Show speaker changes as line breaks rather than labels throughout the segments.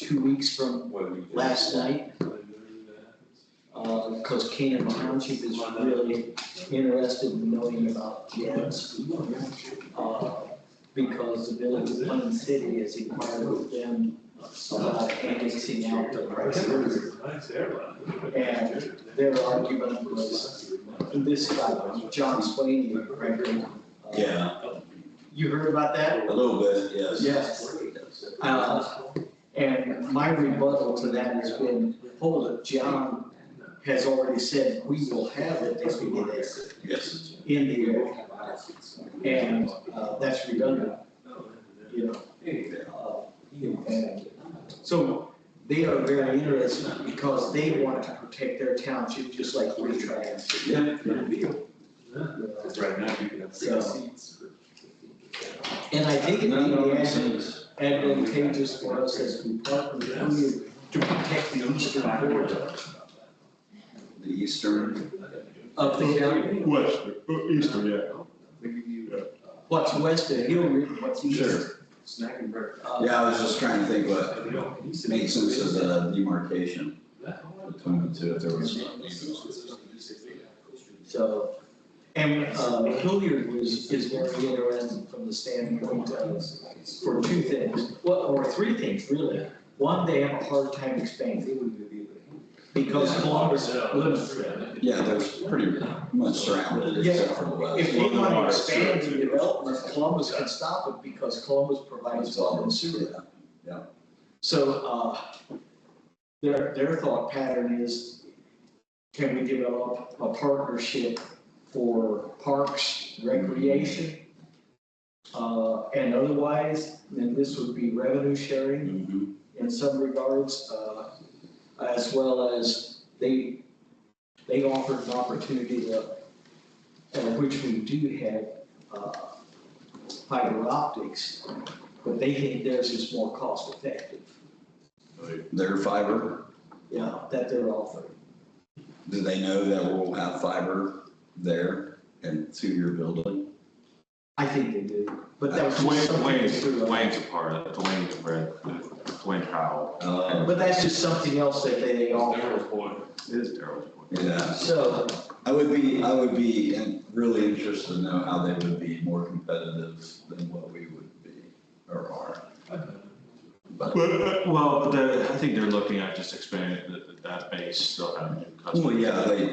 two weeks from
What we did.
last night, uh, because Canaan Township is really interested in knowing about kids. uh, Because the village of Plain City has inquired with them about annexing out the prices. And their argument was, and this guy, John Swain, Gregory. uh,
Yeah,
You heard about that?
a little bit, yes.
Yes. Uh, And my rebuttal to that has been, hold it, John has already said, we will have it if we get it
Yes.
in the area. And uh, that's redundant, you know. Uh, and So they are very interested because they want to protect their township just like we're trying to.
Yeah.
you know.
Right now, you can have
So-
three seats.
And I think it
No,
would
no,
be
it
advan-
seems-
advantageous for us as we partner with you to protect the eastern border.
The eastern,
Up the hill,
West, uh, eastern, yeah.
what's west of Hillridge, what's east?
Snack and break.
uh,
yeah, I was just trying to think what makes sense as a demarcation between the two, if there was.
So, and uh, Hilliard was, is very interesting from the standpoint of, for two things, well, or three things really. One, they have a hard time expanding because Columbus limits them.
Yeah, they're pretty much surrounded except for the west.
If we want to expand the development, Columbus can stop it because Columbus provides water and sewer. So, uh, their, their thought pattern is, can we develop a partnership for parks, recreation? Uh, and otherwise, then this would be revenue sharing
Mhm.
in some regards, uh, as well as they, they offered an opportunity to, uh, which we do have, uh, fiber optics, but they think theirs is more cost effective,
Their fiber,
you know, that they're offering.
do they know that we'll have fiber there and to your building?
I think they do, but that was just
Dwayne,
something.
Dwayne's,
they threw out.
Dwayne's a part of, it. Dwayne's a part of it. Dwayne Powell.
Uh,
But that's just something else that they they offer,
It is Daryl's point.
Yeah,
so,
I would be, I would be in- really interested to know how they would be more competitive than what we would be or are. But,
uh,
But, well, but the, I think they're looking at just expanding that, that base, still have new customers.
well, yeah, they,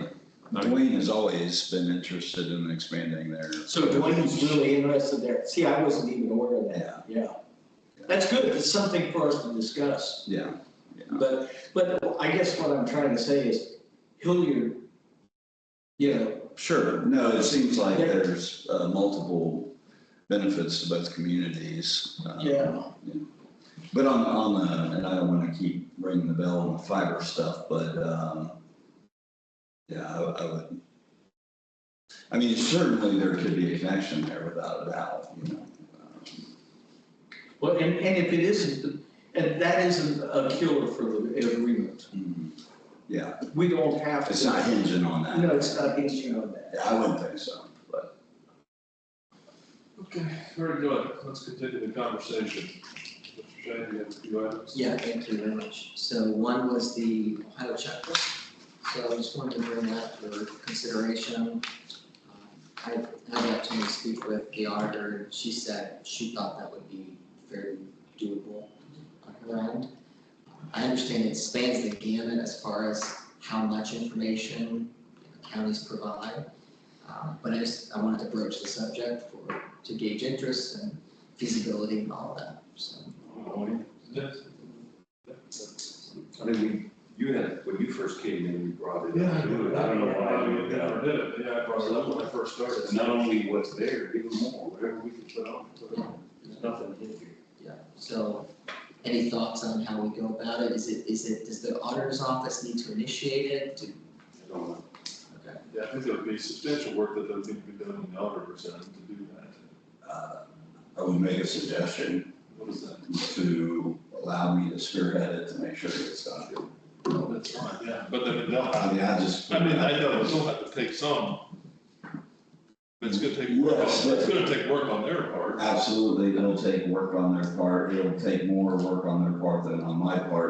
I mean,
Dwayne has always been interested in expanding their,
so Dwayne's really interested there, see, I wasn't even aware of that, yeah. That's good, it's something for us to discuss.
yeah,
But, but I guess what I'm trying to say is Hilliard, you know,
sure. No, it seems like there's uh, multiple benefits to both communities. uh,
yeah,
But on, on the, and I don't want to keep ringing the bell on the fiber stuff, but, um, yeah, I, I would. I mean, certainly there could be a connection there without a doubt, you know.
well, and, and if it isn't, and that isn't a killer for the agreement.
Um, Yeah,
We don't have to.
it's not hinging on that.
No, it's not hinging on that.
Yeah, I wouldn't think so, but
Okay, very good. Let's continue the conversation. Mr. Shane, you have a few items?
Yeah, thank you very much. So one was the Ohio checklist. So I just wanted to bring that for consideration. Um, I I had the opportunity to speak with the auditor, and she said she thought that would be very doable on her end. I understand it spans the gamut as far as how much information counties provide. Um, But I just, I wanted to broach the subject for, to gauge interest and feasibility and all that, so.
Yes.
I mean, we, you had, when you first came in, we brought it
Yeah,
up.
I do.
I don't know why we did
never
that.
did it. Yeah, I brought it up when I first started.
It's not only what's there, give them more, whatever we can put on, put on. There's nothing in here.
Yeah, so any thoughts on how we go about it? Is it, is it, does the auditor's office need to initiate it? Do-
I don't know.
Okay,
Yeah, I think there would be substantial work that does need to be done on the auditor's end to do that.
uh, I would make a suggestion
What is that?
to allow me to spearhead it to make sure it gets done.
That's fine, yeah. But then they'll have,
I mean, I just.
I mean, I know they'll have to take some. But it's gonna take work
Yes,
on,
but-
it's gonna take work on their part.
Absolutely, it'll take work on their part, it'll take more work on their part than on my part,